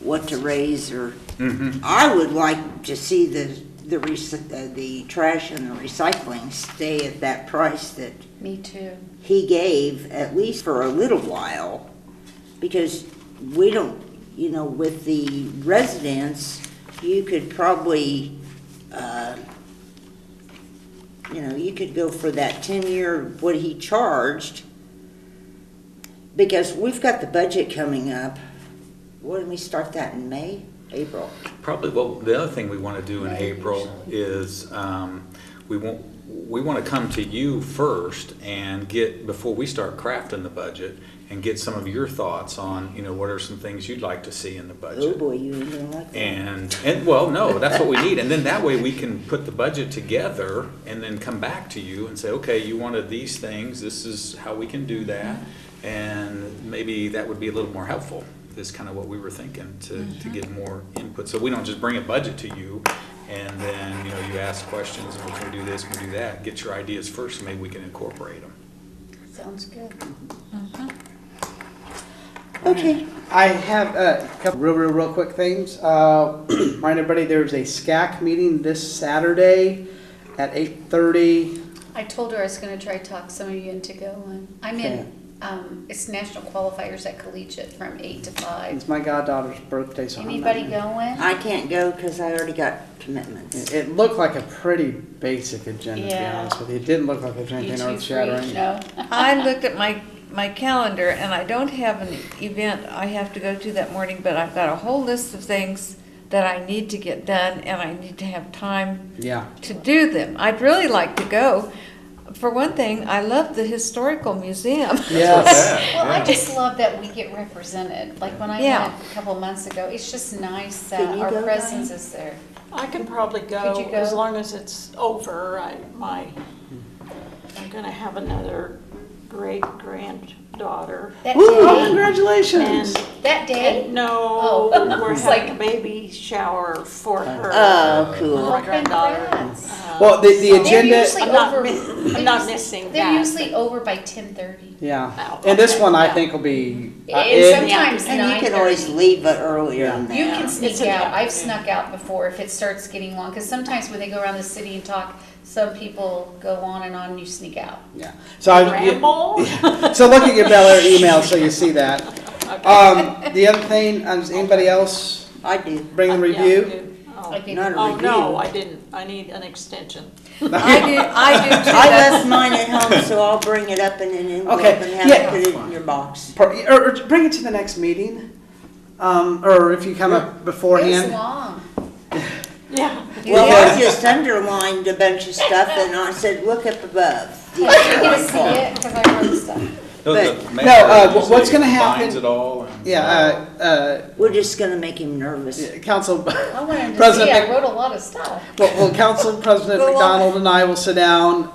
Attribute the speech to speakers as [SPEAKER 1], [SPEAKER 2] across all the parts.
[SPEAKER 1] what to raise or,
[SPEAKER 2] Mhm.
[SPEAKER 1] I would like to see the, the rec- uh, the trash and the recycling stay at that price that
[SPEAKER 3] Me too.
[SPEAKER 1] he gave, at least for a little while, because we don't, you know, with the residents, you could probably, uh, you know, you could go for that ten-year, what he charged, because we've got the budget coming up. What, did we start that in May, April?
[SPEAKER 2] Probably, well, the other thing we want to do in April is, um, we want, we want to come to you first and get, before we start crafting the budget, and get some of your thoughts on, you know, what are some things you'd like to see in the
[SPEAKER 1] Oh,
[SPEAKER 2] budget?
[SPEAKER 1] boy, you ain't gonna like that.
[SPEAKER 2] And, and, well, no, that's what we need, and then that way we can put the budget together and then come back to you and say, okay, you wanted these things, this is how we can do that, and maybe that would be a little more helpful, is kind of what we were thinking, to, to
[SPEAKER 4] Mm-hmm.
[SPEAKER 2] get more input, so we don't just bring a budget to you, and then, you know, you ask questions, and we can do this, we can do that, get your ideas first, and maybe we can incorporate them.
[SPEAKER 3] Sounds good.
[SPEAKER 1] Okay,
[SPEAKER 4] I have a couple real, real, real quick things. Uh, remind everybody there's a SCAC meeting this Saturday at 8:30.
[SPEAKER 3] I told her I was gonna try to talk some of you into going. I'm
[SPEAKER 4] Okay.
[SPEAKER 3] in, um, it's National Qualifiers at Collegiate from eight to five.
[SPEAKER 4] It's my goddaughter's birthday, so I'm not-
[SPEAKER 3] Anybody going?
[SPEAKER 1] I can't go because I already got commitments.
[SPEAKER 4] It, it looked like a pretty basic agenda, to be
[SPEAKER 5] Yeah.
[SPEAKER 4] honest with you. It didn't look like there was
[SPEAKER 3] You
[SPEAKER 4] anything
[SPEAKER 3] two
[SPEAKER 4] earth
[SPEAKER 3] free?
[SPEAKER 4] shattering.
[SPEAKER 3] No?
[SPEAKER 5] I looked at my, my calendar and I don't have an event I have to go to that morning, but I've got a whole list of things that I need to get done and I need to have time
[SPEAKER 4] Yeah.
[SPEAKER 5] to do them. I'd really like to go. For one thing, I love the historical museum.
[SPEAKER 4] Yes.
[SPEAKER 3] Well, I just love that we get represented. Like when I
[SPEAKER 5] Yeah.
[SPEAKER 3] went a couple months ago, it's just nice
[SPEAKER 1] Can
[SPEAKER 3] that
[SPEAKER 1] you
[SPEAKER 3] our
[SPEAKER 1] go,
[SPEAKER 3] presence
[SPEAKER 1] Diane?
[SPEAKER 3] is there.
[SPEAKER 6] I could probably go,
[SPEAKER 3] Could you go?
[SPEAKER 6] as long as it's over. I, my, I'm gonna have another great granddaughter.
[SPEAKER 3] That
[SPEAKER 4] Woo, Oh,
[SPEAKER 3] day,
[SPEAKER 4] congratulations.
[SPEAKER 6] And,
[SPEAKER 3] that
[SPEAKER 6] and
[SPEAKER 3] day,
[SPEAKER 6] no,
[SPEAKER 3] Oh.
[SPEAKER 6] we're
[SPEAKER 3] It's
[SPEAKER 6] having a
[SPEAKER 3] like-
[SPEAKER 6] baby shower for
[SPEAKER 2] Uh,
[SPEAKER 6] her.
[SPEAKER 1] Oh, cool.
[SPEAKER 6] My granddaughter.
[SPEAKER 3] congrats.
[SPEAKER 6] Uh,
[SPEAKER 4] Well, the, the
[SPEAKER 3] They're
[SPEAKER 4] agenda.
[SPEAKER 3] usually
[SPEAKER 6] I'm not,
[SPEAKER 3] over.
[SPEAKER 6] mi- I'm not missing
[SPEAKER 3] They're
[SPEAKER 6] that.
[SPEAKER 3] usually over by ten thirty.
[SPEAKER 4] Yeah.
[SPEAKER 6] Oh,
[SPEAKER 4] And this
[SPEAKER 6] okay.
[SPEAKER 4] one I think will be. uh,
[SPEAKER 3] And
[SPEAKER 4] it-
[SPEAKER 3] sometimes
[SPEAKER 1] And you
[SPEAKER 3] nine
[SPEAKER 1] can always
[SPEAKER 3] thirty.
[SPEAKER 1] leave it earlier than that.
[SPEAKER 3] You can
[SPEAKER 6] It's
[SPEAKER 3] sneak
[SPEAKER 6] in the
[SPEAKER 3] out. I've
[SPEAKER 6] afternoon.
[SPEAKER 3] snuck out before if it starts getting long, because sometimes when they go around the city and talk, some people go on and on and you sneak out.
[SPEAKER 4] yeah. So I,
[SPEAKER 6] Uh, Ramble?
[SPEAKER 4] So looking at Bel Air email, so you see that. Um, the other thing, uh, does anybody else
[SPEAKER 1] I do.
[SPEAKER 4] bring
[SPEAKER 3] Uh,
[SPEAKER 4] the
[SPEAKER 6] Yeah,
[SPEAKER 4] review?
[SPEAKER 6] Oh.
[SPEAKER 3] I gave
[SPEAKER 1] Not
[SPEAKER 3] you-
[SPEAKER 1] a
[SPEAKER 6] Oh, no,
[SPEAKER 1] review.
[SPEAKER 6] I didn't. I need an extension.
[SPEAKER 5] I do, I do too.
[SPEAKER 1] I
[SPEAKER 5] That's-
[SPEAKER 1] left mine at home, so I'll bring it up in an envelope
[SPEAKER 4] Okay,
[SPEAKER 1] and have
[SPEAKER 4] yeah.
[SPEAKER 1] it put it in your box.
[SPEAKER 4] Pro- Or, or bring it to the next meeting, um, or if you come up
[SPEAKER 3] It was
[SPEAKER 4] beforehand.
[SPEAKER 3] long.
[SPEAKER 6] Yeah.
[SPEAKER 1] Well, I
[SPEAKER 4] Yeah.
[SPEAKER 1] just underlined a bunch of stuff and I said, look up above.
[SPEAKER 3] Did you get to see it? Because I wrote stuff.
[SPEAKER 2] No, the
[SPEAKER 1] But-
[SPEAKER 2] mayor
[SPEAKER 4] No, uh, wh-
[SPEAKER 2] usually
[SPEAKER 4] what's gonna happen-
[SPEAKER 2] combines it all and-
[SPEAKER 4] Yeah, uh, uh,
[SPEAKER 1] We're just gonna make him nervous.
[SPEAKER 4] yeah, council,
[SPEAKER 3] I wanted to see,
[SPEAKER 4] President
[SPEAKER 3] I
[SPEAKER 4] Mc-
[SPEAKER 3] wrote a lot of stuff.
[SPEAKER 4] well, well, council president
[SPEAKER 5] Go on.
[SPEAKER 4] McDonald and I will sit down,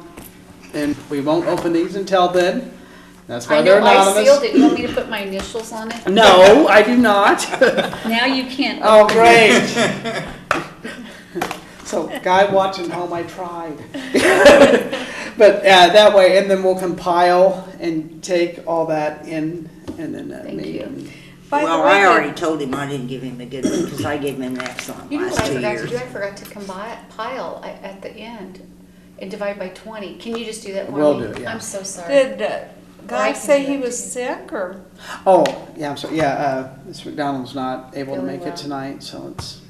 [SPEAKER 4] and we won't open these until then. That's
[SPEAKER 3] I
[SPEAKER 4] why
[SPEAKER 3] know,
[SPEAKER 4] they're
[SPEAKER 3] I sealed
[SPEAKER 4] anonymous.
[SPEAKER 3] it. You want me to put my initials on it?
[SPEAKER 4] No, I do not.
[SPEAKER 3] Now you can't.
[SPEAKER 4] Oh, great. So, guy watching home, I tried. But uh, that way, and then we'll compile and take all that in, and then uh,
[SPEAKER 3] Thank
[SPEAKER 4] meet.
[SPEAKER 3] you.
[SPEAKER 4] and-
[SPEAKER 5] By the
[SPEAKER 1] Well, I
[SPEAKER 5] way,
[SPEAKER 1] already told him I didn't give him a good one because I gave him an excellent
[SPEAKER 3] You know what
[SPEAKER 1] last
[SPEAKER 3] I
[SPEAKER 1] two
[SPEAKER 3] forgot to do? I
[SPEAKER 1] years.
[SPEAKER 3] forgot to compile at, at the end and divide by twenty. Can you just do that for me?
[SPEAKER 4] Will do, yeah.
[SPEAKER 3] I'm so sorry.
[SPEAKER 5] Did uh,
[SPEAKER 3] I
[SPEAKER 5] Guy
[SPEAKER 3] can
[SPEAKER 5] say
[SPEAKER 3] do
[SPEAKER 5] he
[SPEAKER 3] that
[SPEAKER 5] was
[SPEAKER 3] too.
[SPEAKER 5] sick or?
[SPEAKER 4] Oh, yeah, I'm sorry, yeah, uh, Ms. McDonald's not able to
[SPEAKER 3] Really
[SPEAKER 4] make
[SPEAKER 3] well.
[SPEAKER 4] it tonight, so it's.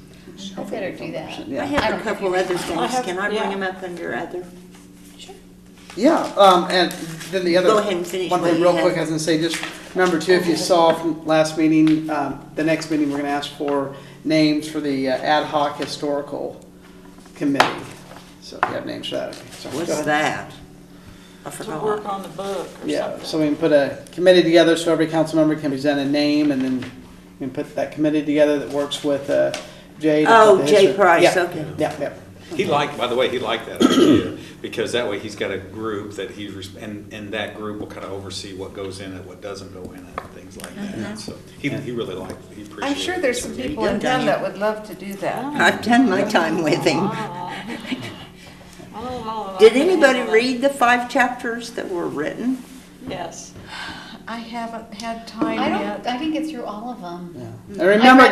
[SPEAKER 3] I better do that.
[SPEAKER 1] I
[SPEAKER 4] Yeah,
[SPEAKER 3] I
[SPEAKER 1] have
[SPEAKER 3] don't
[SPEAKER 1] a couple
[SPEAKER 3] think-
[SPEAKER 1] other things.
[SPEAKER 6] have-
[SPEAKER 1] Can I bring
[SPEAKER 6] yeah.
[SPEAKER 1] them up under other?
[SPEAKER 4] yeah, um, and then the other.
[SPEAKER 1] Go ahead and finish
[SPEAKER 4] One
[SPEAKER 1] what
[SPEAKER 4] thing
[SPEAKER 1] you
[SPEAKER 4] real
[SPEAKER 1] had.
[SPEAKER 4] quick, I was gonna say, just number two, if you saw from last meeting, um, the next meeting, we're gonna ask for names for the uh, ad hoc historical committee. So if you have names for that, okay, sorry. Go
[SPEAKER 1] What's
[SPEAKER 4] ahead.
[SPEAKER 1] that? I
[SPEAKER 6] To work
[SPEAKER 1] forgot.
[SPEAKER 6] on the book or
[SPEAKER 4] Yeah, so
[SPEAKER 6] something.
[SPEAKER 4] we can put a committee together, so every council member can present a name, and then we can put that committee together that works with uh, Jay. to put
[SPEAKER 1] Oh,
[SPEAKER 4] the
[SPEAKER 1] Jay
[SPEAKER 4] history-
[SPEAKER 1] Price,
[SPEAKER 4] yeah,
[SPEAKER 1] okay.
[SPEAKER 4] Yeah, yeah.
[SPEAKER 2] He liked, by the way, he liked that idea, because that way he's got a group that he's, res- and, and that group will kind of oversee what goes in it, what doesn't go in it, things like that. So he, he really liked, he appreciated it.
[SPEAKER 5] I'm sure there's some
[SPEAKER 1] There you
[SPEAKER 5] people
[SPEAKER 1] go,
[SPEAKER 5] in town
[SPEAKER 1] Diane.
[SPEAKER 5] that would love to do that.
[SPEAKER 1] I've done my time with him.
[SPEAKER 6] Wow. I don't know that I
[SPEAKER 1] Did
[SPEAKER 6] can
[SPEAKER 1] anybody
[SPEAKER 6] handle that.
[SPEAKER 1] read the five chapters that were written?
[SPEAKER 6] Yes.
[SPEAKER 5] I haven't had time
[SPEAKER 3] I
[SPEAKER 5] yet.
[SPEAKER 3] don't, I didn't get through all of them.
[SPEAKER 4] And remember,